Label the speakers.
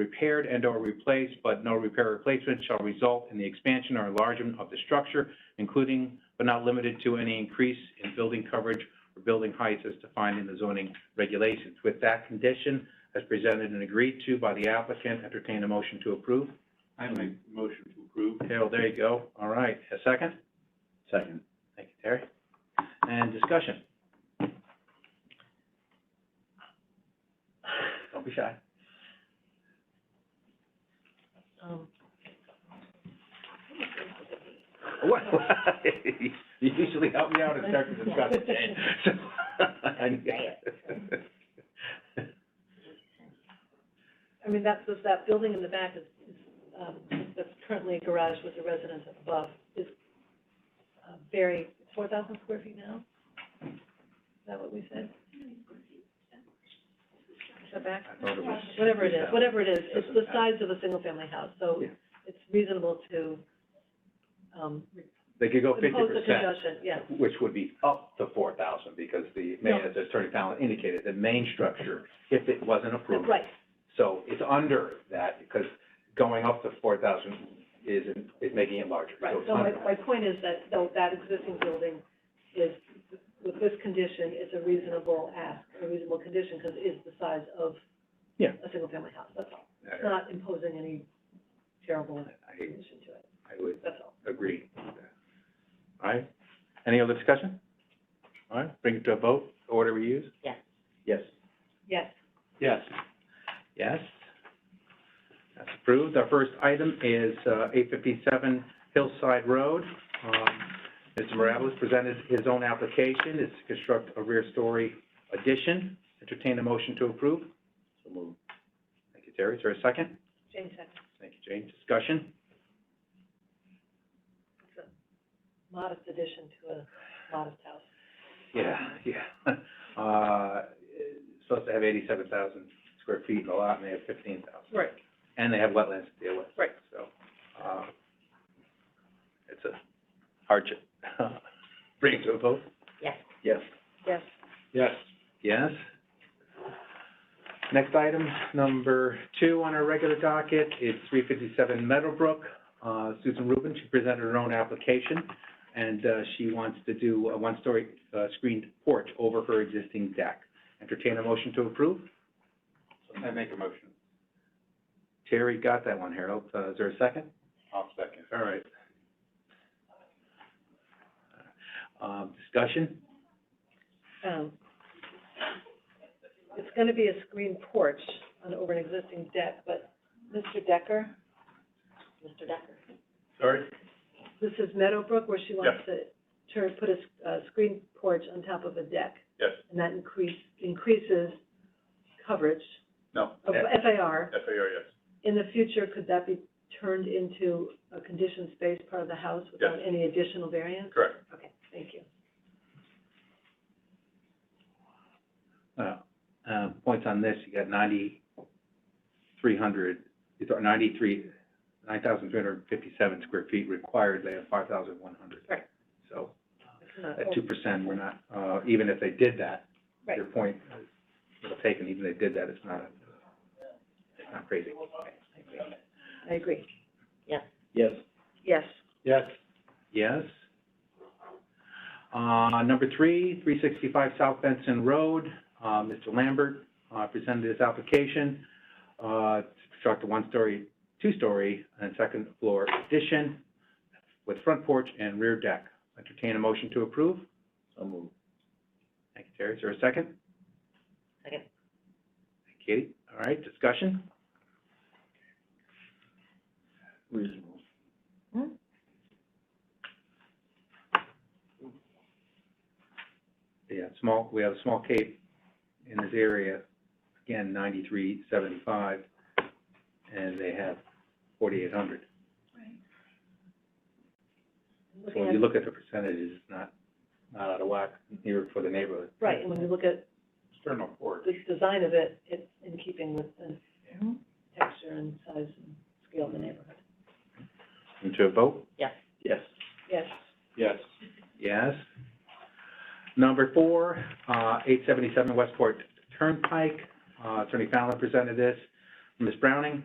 Speaker 1: repaired and/or replaced, but no repair or replacement shall result in the expansion or enlargement of the structure, including but not limited to any increase in building coverage or building heights as defined in the zoning regulations. With that condition, as presented and agreed to by the applicant, entertain a motion to approve.
Speaker 2: I make a motion to approve.
Speaker 1: Harold, there you go. All right, a second?
Speaker 2: Second.
Speaker 1: Thank you, Terry. And discussion? Don't be shy.
Speaker 3: Um,
Speaker 1: What? You usually help me out and start the discussion, Jane. I knew that.
Speaker 3: I mean, that's, that building in the back is, is, um, that's currently a garage with a residence above, is uh, very, four thousand square feet now? Is that what we said? Is that back?
Speaker 1: I thought it was-
Speaker 3: Whatever it is, whatever it is, it's the size of a single-family house, so
Speaker 1: Yeah.
Speaker 3: it's reasonable to, um,
Speaker 1: They could go fifty
Speaker 3: impose a
Speaker 1: percent,
Speaker 3: concession, yeah.
Speaker 1: which would be up to four thousand, because the mayor, as Attorney Fallon indicated, the main structure, if it wasn't approved.
Speaker 3: Right,
Speaker 1: So it's under that, because going up to four thousand is, is making it larger.
Speaker 3: Right,
Speaker 1: So it's
Speaker 3: so my,
Speaker 1: under.
Speaker 3: my point is that, though, that existing building is, with this condition, it's a reasonable ask, a reasonable condition, because it is the size of
Speaker 1: Yeah.
Speaker 3: a single-family house, that's all. It's
Speaker 1: I-
Speaker 3: not imposing any terrible
Speaker 1: I,
Speaker 3: condition to it,
Speaker 1: I would
Speaker 3: that's all.
Speaker 1: agree. with that. All right, any other discussion? All right, bring it to a vote, order we use?
Speaker 3: Yes.
Speaker 1: Yes.
Speaker 3: Yes,
Speaker 2: Yes.
Speaker 1: Yes. That's approved. Our first item is uh, 857 Hillside Road. Um, Mr. Morales presented his own application, is to construct a rear story addition. Entertain a motion to approve. So moved. Thank you, Terry. Is there a second?
Speaker 3: Jane second,
Speaker 1: Thank you, Jane. Discussion?
Speaker 3: it's a modest addition to a modest house.
Speaker 1: Yeah, yeah. Uh, it's Supposed to have 87,000 square feet in the lot, and they have 15,000.
Speaker 3: Right.
Speaker 1: And they have wetlands to deal with.
Speaker 3: Right.
Speaker 1: So, uh, it's a hardship. Bring it to a vote?
Speaker 3: Yes.
Speaker 1: Yes.
Speaker 3: Yes,
Speaker 2: Yes.
Speaker 1: Yes. Next item, number two on our regular docket, it's three fifty-seven Meadowbrook. Uh, Susan Rubin, she presented her own application, and, uh, she wants to do a one-story, uh, screened porch over her existing deck. Entertain a motion to approve?
Speaker 2: I make a motion.
Speaker 1: Terry got that one, Harold. Uh, is there a second?
Speaker 2: I'll second.
Speaker 1: All right. Um, discussion?
Speaker 3: um, it's gonna be a screened porch on, over an existing deck, but Mr. Decker? Mr. Decker.
Speaker 2: Sorry?
Speaker 3: This is Meadowbrook, where she wants to turn, put a, s- a screen porch on top of a deck,
Speaker 2: Yes.
Speaker 3: and that increase, increases coverage
Speaker 2: No.
Speaker 3: of
Speaker 1: Yeah.
Speaker 3: FAR.
Speaker 2: F A R, yes.
Speaker 3: In the future, could that be turned into a conditioned space part of the house without any additional variance?
Speaker 2: Correct.
Speaker 3: Okay, thank you.
Speaker 1: Uh, uh, points on this, you got ninety-three hundred, it's our ninety-three, nine thousand three hundred and fifty-seven square feet required, they have five thousand one hundred.
Speaker 3: Right.
Speaker 1: So,
Speaker 3: It's not-
Speaker 1: at two percent, we're not, uh, even if they did that,
Speaker 3: Right.
Speaker 1: your point is taken, even if they did that, it's not, it's not crazy.
Speaker 3: I agree.
Speaker 2: Yes.
Speaker 3: Yes.
Speaker 2: Yes.
Speaker 1: Yes. Uh, number three, three sixty-five South Benson Road, uh, Mr. Lambert, uh, presented his application, uh, to construct a one-story, two-story, and second floor addition with front porch and rear deck. Entertain a motion to approve?
Speaker 2: So moved.
Speaker 1: Thank you, Terry. Is there a second?
Speaker 3: Second.
Speaker 1: Thank you, Katie. All right, discussion?
Speaker 2: Reasonable.
Speaker 1: Yeah, small, we have a small cape in this area, again, ninety-three seventy-five, and they have forty-eight hundred. So
Speaker 3: Looking
Speaker 1: when you
Speaker 3: at-
Speaker 1: look at the percentages, it's not, not out of whack near for the neighborhood.
Speaker 3: Right, and when you look at
Speaker 2: External porch.
Speaker 3: the design of it, it's in keeping with the texture and size and scale of the neighborhood.
Speaker 1: And to a vote?
Speaker 2: Yes.
Speaker 3: Yes.
Speaker 2: Yes.
Speaker 1: Yes. Number four, uh, eight seventy-seven Westport Turnpike, uh, Attorney Fallon presented this. Ms. Browning,